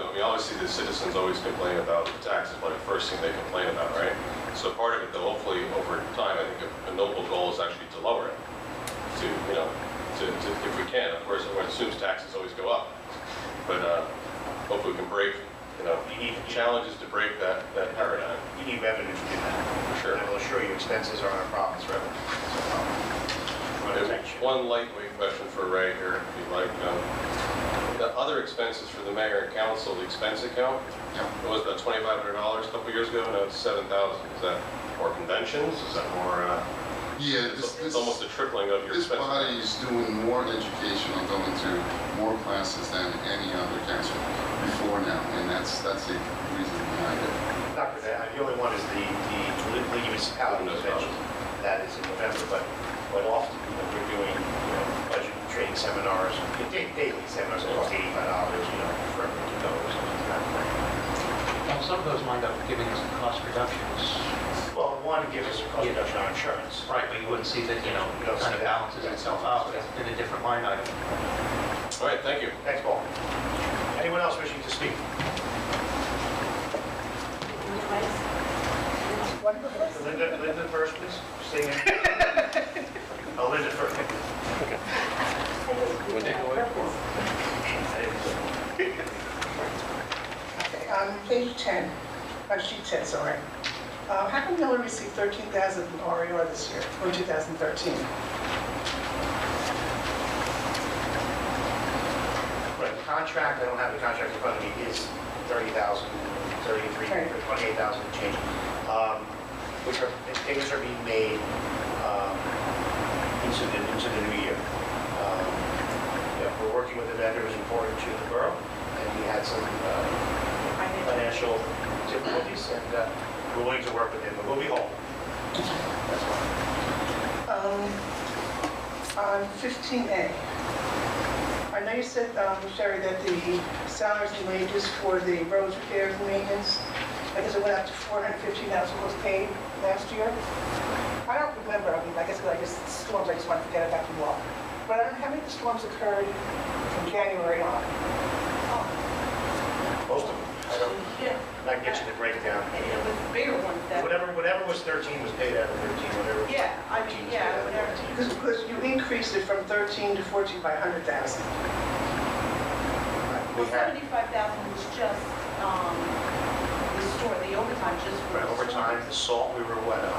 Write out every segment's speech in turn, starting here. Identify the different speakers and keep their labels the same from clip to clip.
Speaker 1: obviously the citizens always complain about the taxes, like the first thing they complain about, right? So part of it, though, hopefully over time, I think a noble goal is actually to lower it, to, you know, to, to, if we can, of course, everyone assumes taxes always go up. But, uh, hopefully we can break, you know,
Speaker 2: You need-
Speaker 1: challenge is to break that, that paradigm,
Speaker 2: You need revenue to do that.
Speaker 1: for sure.
Speaker 2: I will assure you, expenses are our problems, revenue. is our problem.
Speaker 1: There's One lightweight question for Ray here, if you'd like. Um, The other expenses for the mayor and council, the expense account, it was about twenty-five hundred dollars a couple years ago, now it's seven thousand. Is that more conventions? Is that more, uh,
Speaker 3: Yeah, this,
Speaker 1: it's
Speaker 3: this,
Speaker 1: it's almost a tripling of your
Speaker 3: this body
Speaker 1: expenses.
Speaker 3: is doing more education on going to more classes than any other council before now, and that's, that's the reason behind it.
Speaker 2: Not for that, the only one is the, the the municipality convention, that is in November, but, but often, you know, we're doing, you know, budget training seminars, da- daily seminars, that cost eighty-five dollars, you know, for everyone to go or something like that.
Speaker 4: Well, some of those wind up giving us cost reductions.
Speaker 2: Well, one gives us a cost reduction on insurance.
Speaker 4: Right, but you wouldn't see that, you know, it kind of balances itself out in a different line item.
Speaker 1: All right, thank you.
Speaker 2: Thanks, Paul. Anyone else wishing to speak? Linda, Linda first, please, stay in. Oh, Linda first.
Speaker 5: Okay, on Um, page 10, uh, sheet 10, sorry. Uh, How come we only received 13,000 from RER this year, or 2013?
Speaker 2: Right, the contract, I don't have the contract in front of me, is 30,000, 33,
Speaker 5: Right.
Speaker 2: 28,000 and change, um, which are, payments are being made um, into the, into the new year. Um, yeah, We're working with the vendors important to the borough, and we had some uh, financial difficulties, and uh, we're willing to work with them, but we'll be whole. That's fine.
Speaker 5: Um, On 15A, I know you said, um, Sherry, that the salaries and wages for the roads repairs and maintenance, I guess it went up to 415,000 was paid last year. I don't remember, I mean, I guess, I guess storms, I just want to forget about the wall. But I don't know how many of the storms occurred from January on.
Speaker 2: Most of them, I don't,
Speaker 6: Yeah,
Speaker 2: I can get you the breakdown.
Speaker 6: and it was bigger ones that,
Speaker 2: Whatever, whatever was 13 was paid out of 13, whatever.
Speaker 6: yeah, I mean, yeah, whatever.
Speaker 5: Because, because you increased it from 13 to 14 by 100,000.
Speaker 2: We
Speaker 6: Well,
Speaker 2: had,
Speaker 6: seventy-five thousand was just, um, the store, the overtime just for the
Speaker 2: over
Speaker 6: store.
Speaker 2: time, the salt, we were what, uh,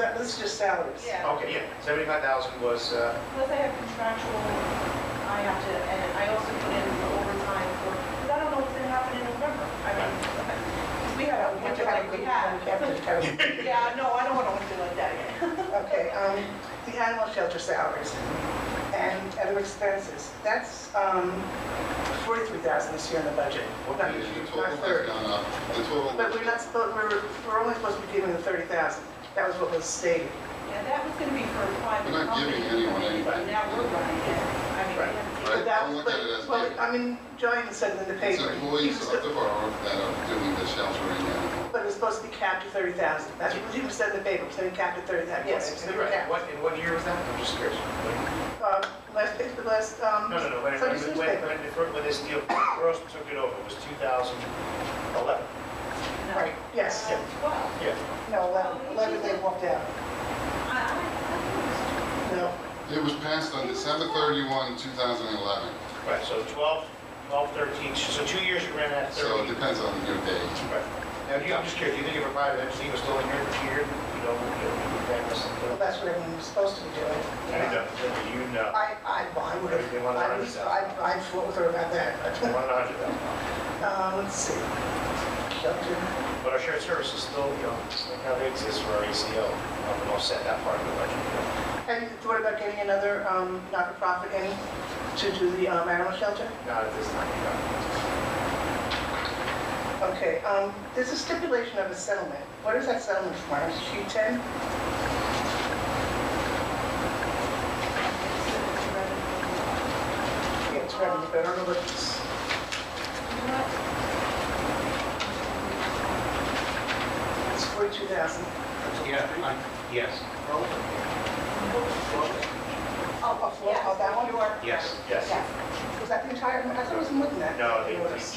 Speaker 5: That, this is just salaries.
Speaker 6: Yeah.
Speaker 2: okay, yeah, 75,000 was, uh,
Speaker 6: Plus I have contractual, I have to, and I also put in the overtime for, because I don't know what's gonna happen in November. I mean, we had a winter like we had. Yeah, no, I don't want a winter like that again.
Speaker 5: Okay, um, the animal shelter salaries and other expenses, that's, um, 43,000 this year in the budget.
Speaker 3: The
Speaker 5: Not-
Speaker 3: total
Speaker 5: Not
Speaker 3: has
Speaker 5: 30.
Speaker 3: gone up, the total.
Speaker 5: But we're not supposed, we're, we're only supposed to be giving the 30,000. That was what was stated.
Speaker 6: Yeah, that was gonna be for a private
Speaker 3: We're not
Speaker 6: company.
Speaker 3: giving anyone anything.
Speaker 6: But now we're running it. I mean, we
Speaker 2: Right.
Speaker 6: have to-
Speaker 3: Right.
Speaker 5: But that,
Speaker 3: don't look
Speaker 5: but,
Speaker 3: at it as
Speaker 5: well,
Speaker 3: big.
Speaker 5: I mean, Joanne said it in the
Speaker 3: It's
Speaker 5: paper.
Speaker 3: employees of the borough that are doing the sheltering and.
Speaker 5: But it's supposed to be capped at 30,000. That's what you said in the paper, it's gonna be capped at 30,000. Yes, it's gonna be
Speaker 2: right,
Speaker 5: capped.
Speaker 2: what, in what year was that? I'm just curious.
Speaker 5: Um, last, page- the last, um,
Speaker 2: No, no, no, when,
Speaker 5: Sunday's
Speaker 2: when,
Speaker 5: newspaper.
Speaker 2: when, when, when this deal, Gross took it over, it was 2011.
Speaker 6: no.
Speaker 5: Right, yes.
Speaker 6: Uh, Twelve.
Speaker 2: Yeah.
Speaker 5: No, 11, 11 they walked out. No,
Speaker 3: It was passed on December 31, 2011,
Speaker 2: Right, so 12, 12, 13, so two years you ran out of
Speaker 3: so
Speaker 2: 30.
Speaker 3: it depends on your day.
Speaker 2: Right. Now, do you, I'm just curious, do you think if a private entity was still in here for two years, you know, you know, you'd pay us?
Speaker 5: well, that's what everyone was supposed to be doing.
Speaker 2: You know,
Speaker 5: I, I, well, I would
Speaker 2: They
Speaker 5: have,
Speaker 2: want
Speaker 5: I was, I, I fought with her about that.
Speaker 2: 100,000.
Speaker 5: Uh, let's see. Shelter.
Speaker 2: But our shared services still, you know, how they exist for our ACO, um, and offset that part of the budget.
Speaker 5: Have you thought about getting another, um, not-for-profit in to do the, um, animal shelter?
Speaker 2: Not at this time, you know.
Speaker 5: Okay, um, there's a stipulation of a settlement. What is that settlement for? Is it sheet 10? Yeah, it's revenue, but I don't know what it's, it's 42,000.
Speaker 4: Yeah, I- yes,
Speaker 5: Oh, oh, oh, that one?
Speaker 4: yes.
Speaker 2: Yes.
Speaker 5: oh, Was that the entire, I thought it was more than that.
Speaker 2: No, it
Speaker 5: It was.
Speaker 2: was-